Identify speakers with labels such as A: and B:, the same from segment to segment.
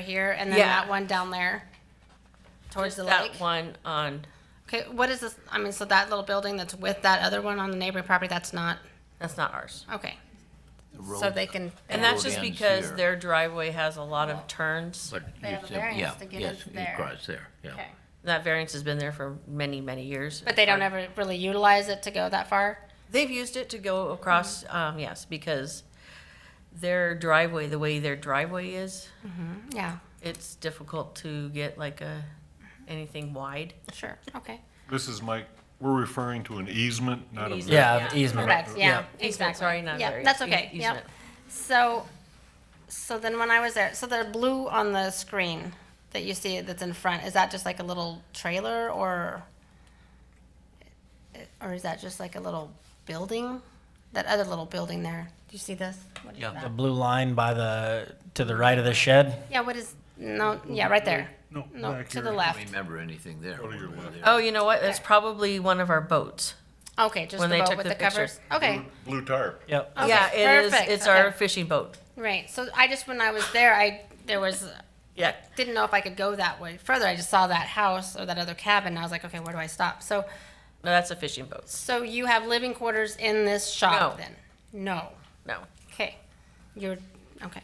A: here and then
B: Yeah.
A: that one down there towards
B: Just
A: the
B: that
A: lake.
B: one on,
A: Okay, what is this? I mean, so that little building that's with that other one on the neighboring property, that's not
B: that's not ours.
A: okay.
C: The
A: So
C: road-
A: they can.
B: And
C: The
B: that's
C: road
B: just
C: ends
B: because
C: here.
B: their driveway has a lot of turns.
C: But
A: They
C: you
A: have a
C: said-
A: variance
C: yeah,
A: to get
C: yes,
A: into there.
C: Across there, yeah.
A: Okay,
B: That variance has been there for many, many years.
A: but they don't ever really utilize it to go that far.
B: They've used it to go across,
A: Mm-hmm.
B: um, yes, because their driveway, the way their driveway is,
A: Yeah,
B: it's difficult to get like a, anything wide.
A: sure. Okay.
D: This is Mike, we're referring to an easement, not a.
B: Easement.
E: Yeah,
B: Uh, Yeah.
E: easement.
A: Correct. Yeah.
B: Easement,
A: Exactly.
B: sorry, not
A: Yeah,
B: variance.
A: that's
B: E-
A: okay. Yep.
B: easement.
A: So, so then when I was there, so the blue on the screen that you see that's in front, is that just like a little trailer or? Or is that just like a little building? That other little building there? Do you see this? What is
E: The
A: that?
E: blue line by the to the right of the shed.
A: Yeah, what is, no, yeah, right there.
D: No,
A: No,
D: back
A: to
D: here.
A: the
C: I
A: left.
C: don't remember anything there. when we were there.
B: Oh, you know what? That's probably one of our boats.
A: Okay, just the
B: When they
A: boat
B: took
A: with
B: the
A: the covers? Okay,
D: Blue tarp.
E: Yep.
A: Okay,
B: Yeah, it is,
A: perfect,
B: it's our
A: okay.
B: fishing boat.
A: right. So I just, when I was there, I, there was,
B: Yeah.
A: didn't know if I could go that way further. I just saw that house or that other cabin. And I was like, okay, where do I stop? So,
B: No, that's a fishing boat.
A: so you have living quarters in this shop
B: No.
A: then? No.
B: No.
A: Okay. You're okay.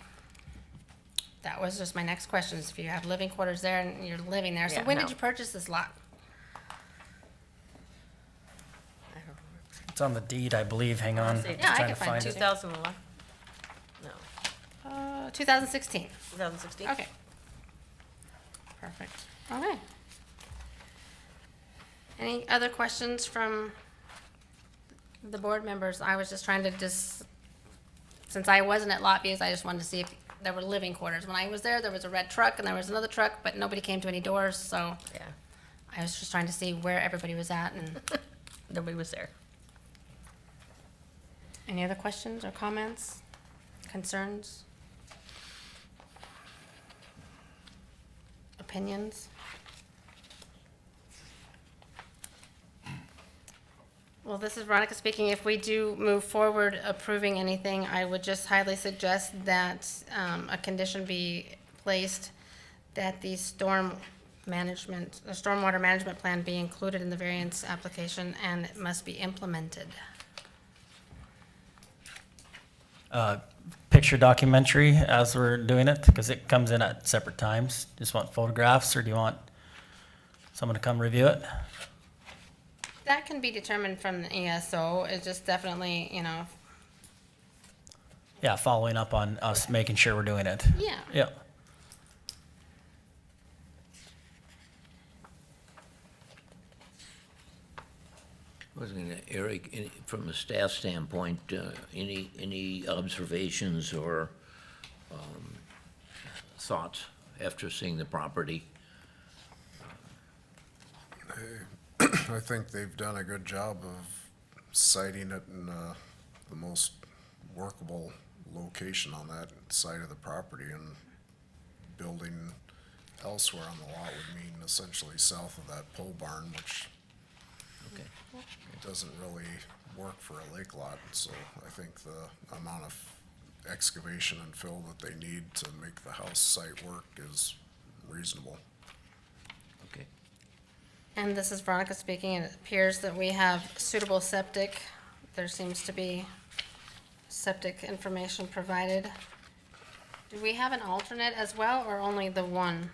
A: That was just my next question. Is if you have living quarters there and you're living there, so
B: Yeah,
A: when
B: no.
A: did you purchase this lot?
E: It's on the deed, I believe. Hang on.
B: Yeah,
A: I
E: Just trying
A: can
E: to
A: find
E: find
A: it.
E: it.
B: 2011? No,
A: Uh, 2016.
B: 2016?
A: Okay. Perfect. All right. Any other questions from the board members? I was just trying to just, since I wasn't at lot views, I just wanted to see if there were living quarters. When I was there, there was a red truck and there was another truck, but nobody came to any doors, so
B: Yeah,
A: I was just trying to see where everybody was at and
B: nobody was there.
A: any other questions or comments, concerns? Opinions? Well, this is Veronica speaking. If we do move forward approving anything, I would just highly suggest that um, a condition be placed that the storm management, the stormwater management plan be included in the variance application and it must be implemented.
E: Picture documentary as we're doing it because it comes in at separate times. Just want photographs, or do you want someone to come review it?
A: That can be determined from the ESO. It's just definitely, you know,
E: Yeah, following up on us making sure we're doing it.
A: yeah.
E: Yep.
C: I was gonna, Eric, any- from a staff standpoint, uh, any, any observations or um, thoughts after seeing the property?
F: I think they've done a good job of siting it in uh, the most workable location on that side of the property and building elsewhere on the lot would mean essentially south of that pole barn, which
C: Okay.
F: doesn't really work for a lake lot. So I think the amount of excavation and fill that they need to make the house site work is reasonable.
C: Okay.
A: And this is Veronica speaking, and it appears that we have suitable septic. There seems to be septic information provided. Do we have an alternate as well, or only the one?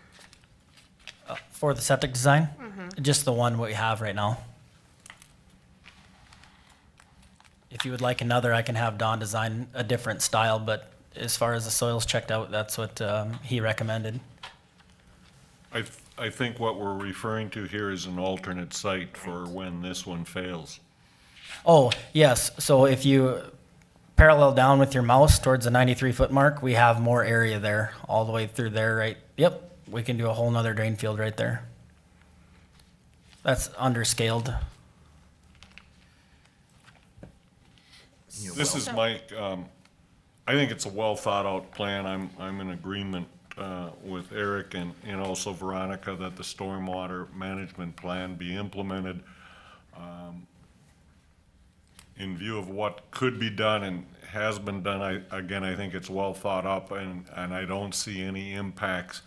E: For the septic design, just the one we have right now. If you would like another, I can have Don design a different style, but as far as the soils checked out, that's what um, he recommended.
D: I, th- I think what we're referring to here is an alternate site for when this one fails.
E: Oh, yes. So if you parallel down with your mouse towards the 93 foot mark, we have more area there, all the way through there, right? Yep, we can do a whole nother drain field right there. That's underscaled.
C: You're
D: This
C: wel-
D: is Mike, um, I think it's a well-thought-out plan. I'm, I'm in agreement, uh, with Eric and, and also Veronica that the stormwater management plan be implemented, um, in view of what could be done and has been done. I, again, I think it's well thought up and, and I don't see any impacts